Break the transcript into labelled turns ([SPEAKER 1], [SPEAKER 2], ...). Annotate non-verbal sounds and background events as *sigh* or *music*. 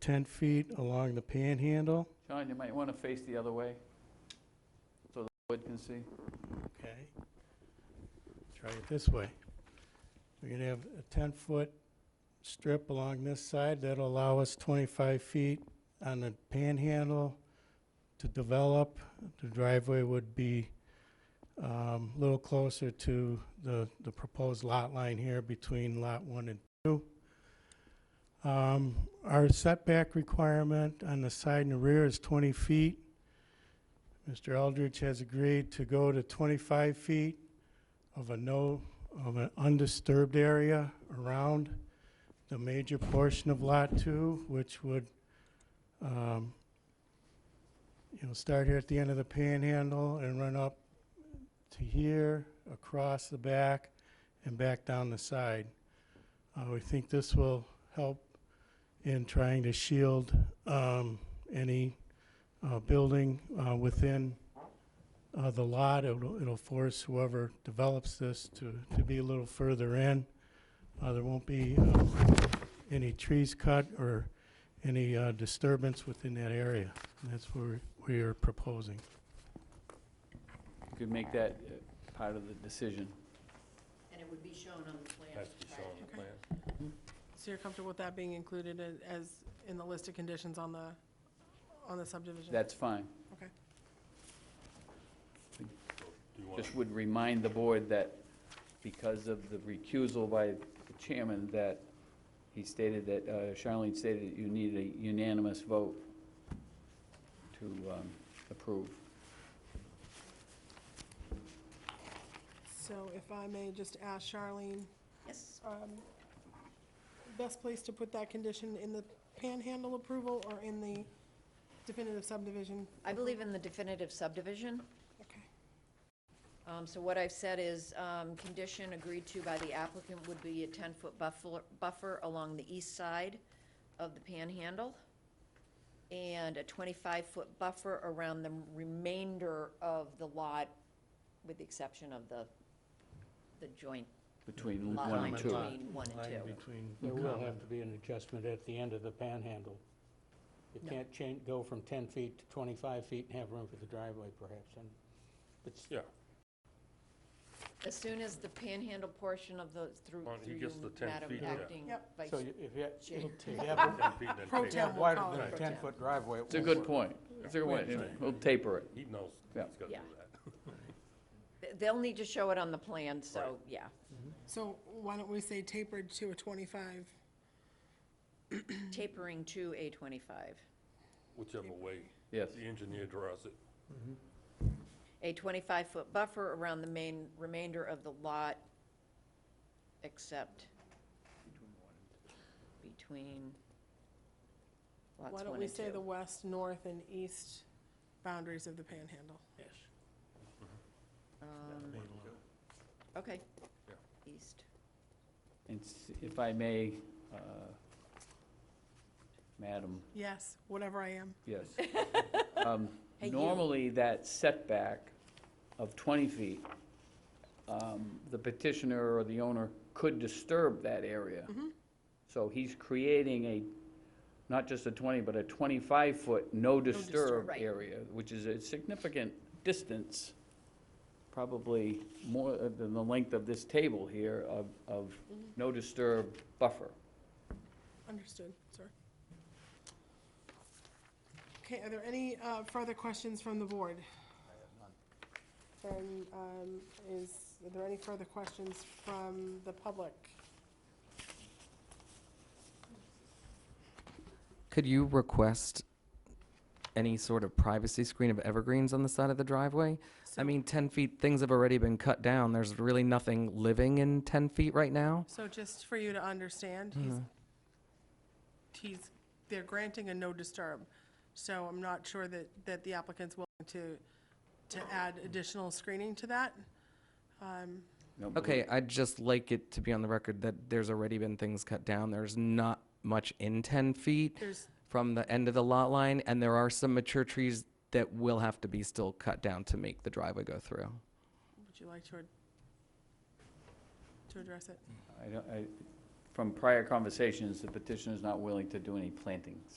[SPEAKER 1] 10 feet along the panhandle.
[SPEAKER 2] John, you might want to face the other way, so the board can see.
[SPEAKER 1] Okay. Try it this way. We're gonna have a ten-foot strip along this side that'll allow us twenty-five feet on the panhandle to develop. The driveway would be um, a little closer to the, the proposed lot line here between lot one and two. Um, Our setback requirement on the side and the rear is twenty feet. Mr. Eldridge has agreed to go to 25 feet of a no, of an undisturbed area around the major portion of Lot 2, which would, um, you know, start here at the end of the panhandle and run up to here, across the back, and back down the side. Uh, We think this will help in trying to shield um, any uh, building uh, within uh, the lot. It'll it'll force whoever develops this to to be a little further in. Uh, There won't be uh, any trees cut or any uh, disturbance within that area. And That's where we are proposing.
[SPEAKER 2] You could make that uh, part of the decision.
[SPEAKER 3] And it would be shown on the plan.
[SPEAKER 4] Has to be shown on the
[SPEAKER 5] Okay.
[SPEAKER 4] plan.
[SPEAKER 5] So you're comfortable with that being included in- as, in the list of conditions on the, on the subdivision?
[SPEAKER 2] That's fine.
[SPEAKER 5] Okay.
[SPEAKER 4] Do you want
[SPEAKER 2] Just would remind the board that because of the recusal by the chairman, that he stated that, uh, Charlene stated that you need a unanimous vote to um, approve.
[SPEAKER 5] So if I may just ask Charlene,
[SPEAKER 3] Yes,
[SPEAKER 5] um, best place to put that condition in the panhandle approval or in the definitive subdivision?
[SPEAKER 3] I believe in the definitive subdivision.
[SPEAKER 5] Okay.
[SPEAKER 3] Um, So what I've said is, um, condition agreed to by the applicant would be a 10-foot buffer buffer along the east side of the panhandle, and a 25-foot buffer around the remainder of the lot, with the exception of the, the joint
[SPEAKER 2] Between
[SPEAKER 3] lot
[SPEAKER 2] one
[SPEAKER 3] line
[SPEAKER 2] and two.
[SPEAKER 3] between one and
[SPEAKER 1] Line
[SPEAKER 3] two.
[SPEAKER 1] between-
[SPEAKER 6] There will have to be an adjustment at the end of the panhandle. You
[SPEAKER 3] No.
[SPEAKER 6] can't change, go from 10 feet to 25 feet and have room for the driveway perhaps, and it's,
[SPEAKER 4] Yeah,
[SPEAKER 3] As soon as the panhandle portion of the, through,
[SPEAKER 4] Well, he
[SPEAKER 3] through you,
[SPEAKER 4] gets the 10
[SPEAKER 3] Madam
[SPEAKER 4] feet, yeah.
[SPEAKER 3] Acting
[SPEAKER 5] Yep.
[SPEAKER 3] Vice
[SPEAKER 6] so you- if you,
[SPEAKER 3] Chair.
[SPEAKER 6] if you have a-
[SPEAKER 4] ten feet and
[SPEAKER 5] Pro
[SPEAKER 4] then
[SPEAKER 5] tem.
[SPEAKER 4] take-
[SPEAKER 5] we'll
[SPEAKER 6] wider
[SPEAKER 5] call
[SPEAKER 6] than
[SPEAKER 5] it
[SPEAKER 6] a
[SPEAKER 3] pro tem.
[SPEAKER 6] 10-foot driveway, it
[SPEAKER 2] It's a
[SPEAKER 6] won't
[SPEAKER 2] good
[SPEAKER 6] work.
[SPEAKER 2] point. It's a good point. We'll taper it.
[SPEAKER 4] he knows he's
[SPEAKER 2] Yeah.
[SPEAKER 4] got to do
[SPEAKER 3] Yeah.
[SPEAKER 4] that.
[SPEAKER 3] Th- They'll need to show it on the plan, so,
[SPEAKER 4] Right.
[SPEAKER 3] yeah.
[SPEAKER 5] So why don't we say tapered to a 25?
[SPEAKER 3] Tapering to A twenty-five.
[SPEAKER 4] Whichever way
[SPEAKER 2] Yes.
[SPEAKER 4] the engineer draws it.
[SPEAKER 3] A twenty-five foot buffer around the main, remainder of the lot, except between lots one
[SPEAKER 5] Why
[SPEAKER 3] and two.
[SPEAKER 5] don't we say the west, north, and east boundaries of the panhandle?
[SPEAKER 3] Um, Okay.
[SPEAKER 4] Yeah.
[SPEAKER 3] East.
[SPEAKER 2] And s- if I may, uh, Madam,
[SPEAKER 5] Yes, whatever I am.
[SPEAKER 2] yes.
[SPEAKER 3] *laughs*
[SPEAKER 2] Um,
[SPEAKER 3] Hey, you.
[SPEAKER 2] Normally, that setback of 20 feet, um, the petitioner or the owner could disturb that area.
[SPEAKER 3] Mm-hmm.
[SPEAKER 2] So he's creating a, not just a 20, but a 25-foot no disturb
[SPEAKER 3] right.
[SPEAKER 2] area, which is a significant distance, probably more uh, than the length of this table here of, of
[SPEAKER 3] Mm-hmm.
[SPEAKER 2] no disturb buffer.
[SPEAKER 5] Understood, sir. Okay, are there any uh, further questions from the board? I have none. Then, um, is, are there any further questions from the public?
[SPEAKER 7] Could you request any sort of privacy screen of evergreens on the side of the driveway? I
[SPEAKER 5] So-
[SPEAKER 7] mean, 10 feet, things have already been cut down. There's really nothing living in 10 feet right now.
[SPEAKER 5] So just for you to understand, he's, he's, they're granting a no disturb. So I'm not sure that, that the applicant's willing to, to add additional screening to that.
[SPEAKER 2] No, but-
[SPEAKER 7] Okay, I'd just like it to be on the record that there's already been things cut down. There's not much in 10 feet
[SPEAKER 5] There's-
[SPEAKER 7] from the end of the lot line, and there are some mature trees that will have to be still cut down to make the driveway go through.
[SPEAKER 5] Would you like to, ad- to address it?
[SPEAKER 2] I don't, I, from prior conversations, the petitioner's not willing to do any plantings.